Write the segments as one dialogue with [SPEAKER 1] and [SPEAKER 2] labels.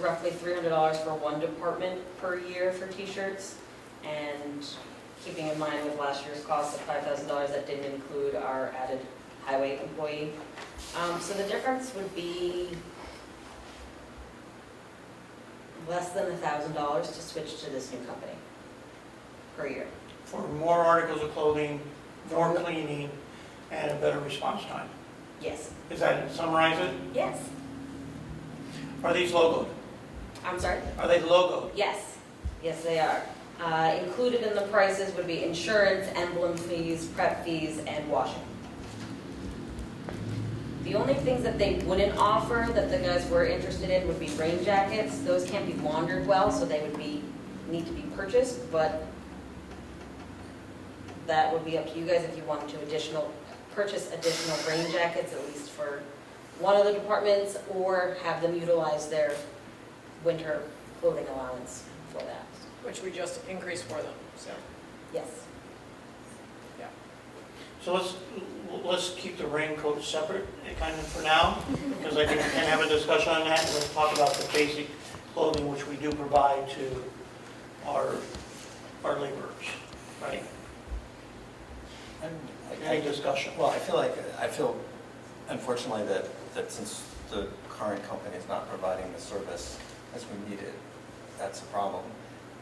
[SPEAKER 1] roughly three hundred dollars for one department per year for t-shirts. And keeping in mind with last year's cost of five thousand dollars, that didn't include our added highway employee. Um, so the difference would be less than a thousand dollars to switch to this new company per year.
[SPEAKER 2] for more articles of clothing, more cleaning, and a better response time.
[SPEAKER 1] Yes.
[SPEAKER 2] Is that, summarize it?
[SPEAKER 1] Yes.
[SPEAKER 2] Are these logoed?
[SPEAKER 1] I'm sorry?
[SPEAKER 2] Are they logoed?
[SPEAKER 1] Yes, yes, they are. Uh, Included in the prices would be insurance, emblem fees, prep fees, and washing. The only things that they wouldn't offer that the guys were interested in would be rain jackets. Those can't be laundered well, so they would be, need to be purchased, but that would be up to you guys if you wanted to additional, purchase additional rain jackets, at least for one of the departments, or have them utilize their winter clothing allowance for that.
[SPEAKER 3] which we just increased for them, so.
[SPEAKER 1] Yes.
[SPEAKER 2] So let's, let's keep the raincoat separate, eh, kind of for now, because I think we can have a discussion on that, and let's talk about the basic clothing which we do provide to our, our laborers, right? Any
[SPEAKER 4] I'm-
[SPEAKER 2] discussion?
[SPEAKER 4] Well, I feel like, I feel unfortunately that, that since the current company is not providing the service as we need it, that's a problem.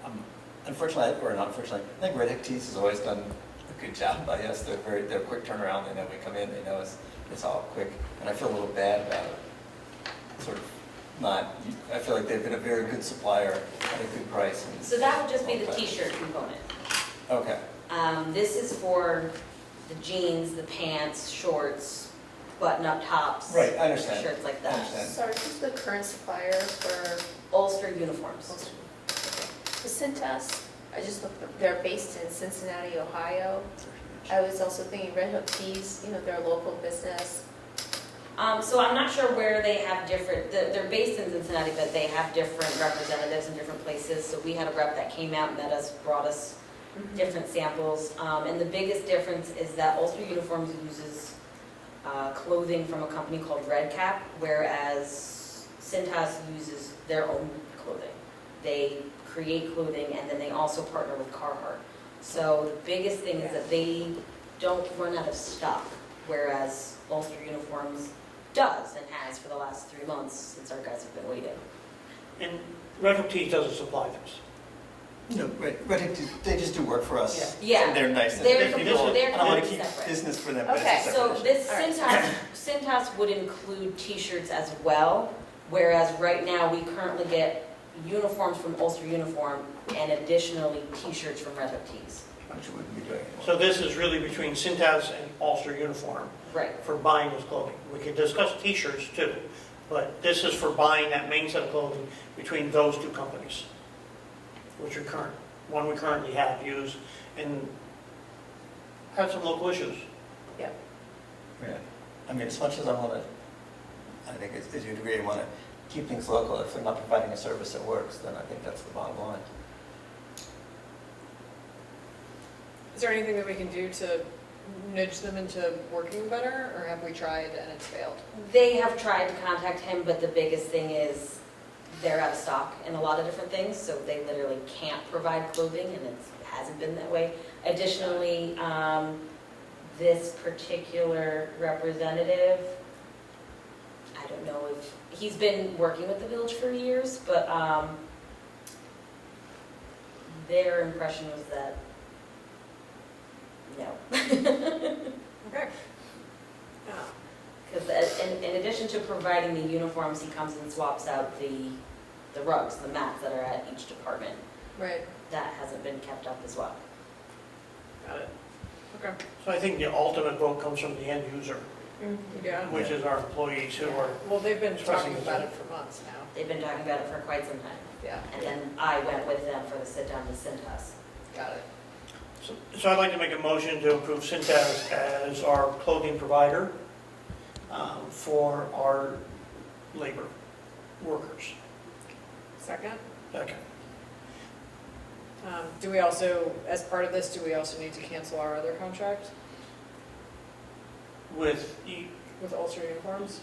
[SPEAKER 4] Um, Unfortunately, or not unfortunately, I think Red Hook Tees has always done a good job by us. They're very, they're quick turnaround. They know we come in, they know it's, it's all quick. And I feel a little bad about it. Sort of not, I feel like they've been a very good supplier at a good price. and-
[SPEAKER 1] So that would just be the
[SPEAKER 4] Okay.
[SPEAKER 1] t-shirt component.
[SPEAKER 4] Okay,
[SPEAKER 1] Um, This is for the jeans, the pants, shorts, button-up tops.
[SPEAKER 4] Right, I understand.
[SPEAKER 1] Shirts like
[SPEAKER 4] I
[SPEAKER 1] that.
[SPEAKER 4] understand.
[SPEAKER 5] Sorry, who's the current supplier for
[SPEAKER 1] Ulster uniforms.
[SPEAKER 5] Ulster? The Cintas, I just looked, up- they're based in Cincinnati, Ohio. I was also thinking Red Hook Tees, you know, they're a local business.
[SPEAKER 1] Um, So I'm not sure where they have different, they're they're based in Cincinnati, but they have different representatives in different places. So we had a rep that came out and met us, brought us different samples. Um, And the biggest difference is that Ulster Uniforms uses uh, clothing from a company called Red Cap, whereas Cintas uses their own clothing. They create clothing and then they also partner with Carhartt. So the biggest thing is that they don't run out of stock, whereas Ulster Uniforms does and has for the last three months since our guys have been waiting.
[SPEAKER 2] And Red Hook Tees doesn't supply this.
[SPEAKER 4] No, right, but it- they just do work for us.
[SPEAKER 1] Yeah.
[SPEAKER 4] They're nice. and
[SPEAKER 1] They're,
[SPEAKER 4] people-
[SPEAKER 2] this is-
[SPEAKER 1] they're
[SPEAKER 4] I don't want to
[SPEAKER 1] completely
[SPEAKER 4] keep
[SPEAKER 1] separate.
[SPEAKER 4] business for them, but it's a
[SPEAKER 5] Okay.
[SPEAKER 4] separate
[SPEAKER 1] So
[SPEAKER 4] issue.
[SPEAKER 1] this
[SPEAKER 5] All right.
[SPEAKER 1] Cintas, Cintas would include t-shirts as well, whereas right now, we currently get uniforms from Ulster Uniform and additionally, t-shirts from Red Hook Tees.
[SPEAKER 4] Which wouldn't be doing anymore.
[SPEAKER 2] So this is really between Cintas and Ulster Uniform
[SPEAKER 1] Right.
[SPEAKER 2] for buying this clothing. We can discuss t-shirts too, but this is for buying that main set of clothing between those two companies, which are current, one we currently have used and had some local issues.
[SPEAKER 4] Yeah. I mean, as much as I want to, I think as as you agree, want to keep things local, if they're not providing a service that works, then I think that's the bottom line.
[SPEAKER 3] Is there anything that we can do to nudge them into working better, or have we tried and it's failed?
[SPEAKER 1] They have tried to contact him, but the biggest thing is they're out of stock in a lot of different things, so they literally can't provide clothing, and it's- it hasn't been that way. Additionally, um, this particular representative, I don't know if, he's been working with the village for years, but um, their impression was that, no.
[SPEAKER 3] Okay. Ah,
[SPEAKER 1] Because in, in addition to providing the uniforms, he comes and swaps out the, the rugs, the mats that are at each department.
[SPEAKER 3] Right,
[SPEAKER 1] That hasn't been kept up as well.
[SPEAKER 3] got it. Okay,
[SPEAKER 2] So I think the ultimate vote comes from the end user,
[SPEAKER 3] Mm-hmm. yeah.
[SPEAKER 2] which is our employees who are,
[SPEAKER 3] Well, they've been talking about it for months now,
[SPEAKER 1] They've been talking about it for quite some time.
[SPEAKER 3] yeah,
[SPEAKER 1] And then I went with them for the sit-down with Cintas.
[SPEAKER 3] got it.
[SPEAKER 2] so so I'd like to make a motion to approve Cintas as our clothing provider um, for our labor workers.
[SPEAKER 3] Second,
[SPEAKER 2] Second.
[SPEAKER 3] um, do we also, as part of this, do we also need to cancel our other contract
[SPEAKER 2] With, e-
[SPEAKER 3] with Ulster Uniforms?